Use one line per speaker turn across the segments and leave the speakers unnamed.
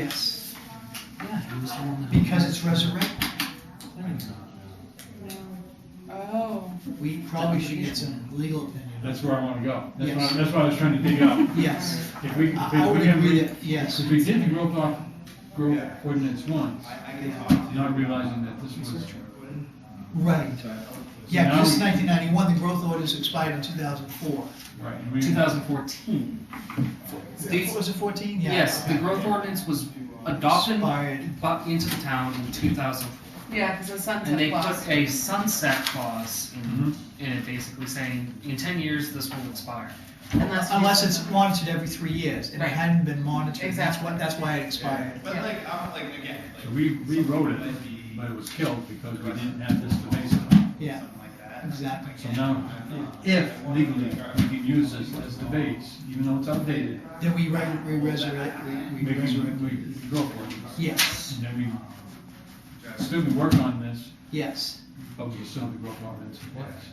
Yes,
Yeah, he was the one that.
because it's resurrected.
Oh,
We probably should get some legal opinion.
That's where I want to go. That's
Yes.
what, that's what I was trying to dig up.
Yes,
If we,
I I
if
would
we can,
agree
if
that, yes.
we did the growth off, growth ordinance once, not realizing that this was,
Right.
So
Yeah,
now
this
we-
1991, the growth orders expired in 2004.
right, and we,
2014. These-
Was it 14? Yeah.
yes, the growth ordinance was adopted
Expired.
brought into the town in 2000,
yeah, because the
and they
sunset
took
clause.
a sunset clause in,
Mhm.
in it, basically saying in 10 years this will expire.
Unless you-
Unless it's monitored every three years, and it
Right.
hadn't been monitored, that's
Exactly.
what, that's why it expired.
But like, I'm like, again, like.
so we rewrote it,
something
but it
might be-
was killed because we didn't have this to base it on.
Yeah,
Something like that.
exactly.
So now, if legally, we can use this as the base, even though it's outdated,
Then we re- we resurrect, we
we
we resurrect.
can, we can go for it.
Yes,
And then we, still be working on this,
yes.
but we still have the growth ordinance in place.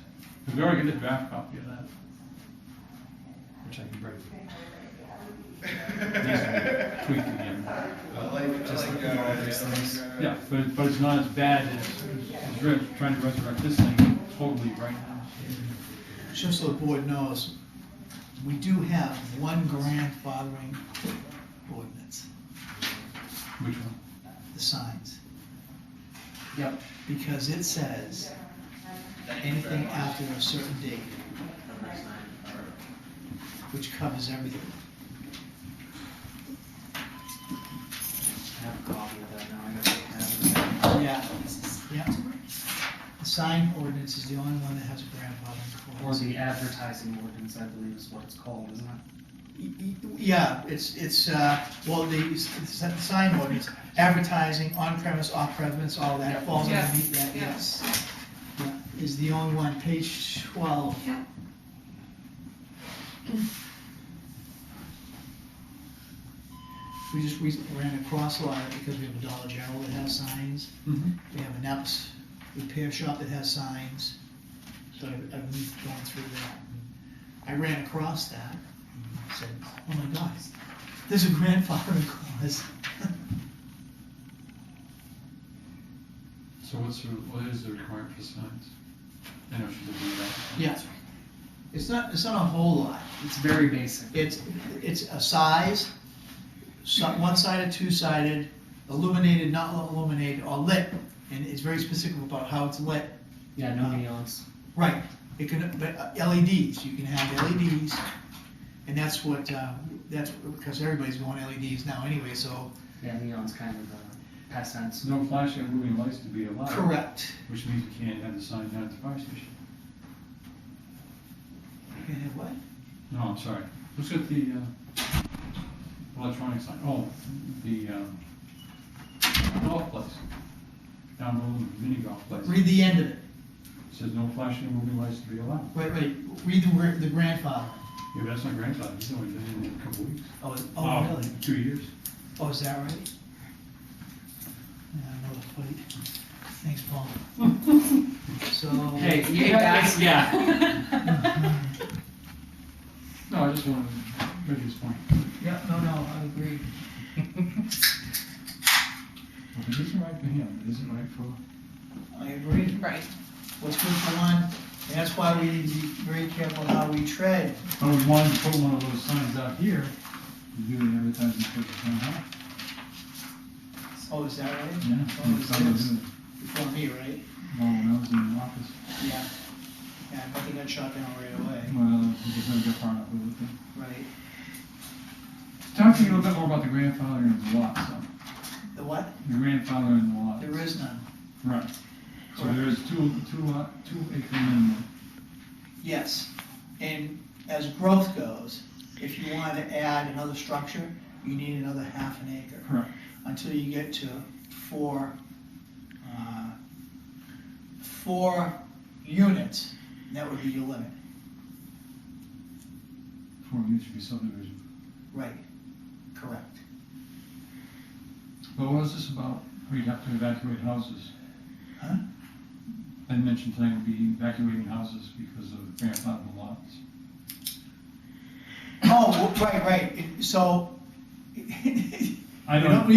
We've already got a draft copy of that, which I can bring. Just Tweak again.
I like, I like, uh, yeah,
Yeah, but, but it's not as bad as, as Rich trying to resurrect this thing totally right now.
Just so the board knows, we do have one grandfathering ordinance,
Which one?
the signs,
Yep.
because it says anything after a certain date, which covers everything.
I have a copy of that now. I gotta have it.
Yeah, yeah. The sign ordinance is the only one that has a grandfathering
Or
clause.
the advertising ordinance, I believe is what it's called, isn't it?
Y- y- Yeah, it's, it's, uh, well, the s- s- sign ordinance, advertising, on-premise, off-premise, all that falls
Yeah.
underneath that,
Yeah.
yes. Yeah, Is the only one, page twelve.
Yeah.
We just re- ran across a lot of it because we have a Dollar General that has signs,
Mm-hmm.
we have an Epps repair shop that has signs, so I've, I've been going through that. I ran across that, and said, oh my gosh, there's a grandfathering clause.
So what's the, what is the requirement for signs? I know she's looking at
Yeah. It's not, it's not a whole lot.
It's very basic.
It's, it's a size, some, one-sided, two-sided, illuminated, not illuminated, or lit. And it's very specific about how it's lit.
Yeah, no neons.
Right, it can, but uh, LEDs, you can have LEDs, and that's what, uh, that's, because everybody's going LEDs now anyway, so.
Yeah, neon's kind of uh, a past
that.
tense.
No flashing moving lights to be allowed.
Correct.
Which means you can't have the sign down at the fire station.
You can have what?
No, I'm sorry. Let's get the uh, electronic sign. Oh, the um, golf place. Down below the mini golf place.
Read the end of it.
Says no flashing or moving lights to be allowed.
Wait, wait, read the, word- the grandfather.
Yeah, but that's not grandfathered. He's only been in a couple weeks.
Oh, it- oh, really?
Two years.
Oh, is that right? Yeah, I know the fight. Thanks, Paul. So.
Hey, yay, guys, yeah.
No, I just wanted to make this point.
Yeah, no, no, I agree.
If it isn't right for him, it isn't right for.
I agree.
Right,
What's good for one, and that's why we need to be very careful how we tread.
I would want to put one of those signs out here. You do it every time you put the sign out.
Oh, is that right?
Yeah.
Oh,
and
it's
someone
six.
did it
Before me, right?
While when I was in the office,
Yeah. Yeah, I bet they got shot down right away.
well, he just never got far enough with it.
Right.
Talk to me a little bit more about the grandfather and the lot, so,
The what?
the grandfather and the lot.
There is none.
Right, so there is two, two lot, two acre minimum.
Yes. And as growth goes, if you want to add another structure, you need another half an acre.
Correct.
Until you get to four, uh, four units, that would be your limit.
Four units should be subdivision.
Right. Correct.
But what was this about, we'd have to evacuate houses?
Huh?
I mentioned tonight we'd be evacuating houses because of grandfather lots.
Oh, right, right. So,
I
You
don't,
don't-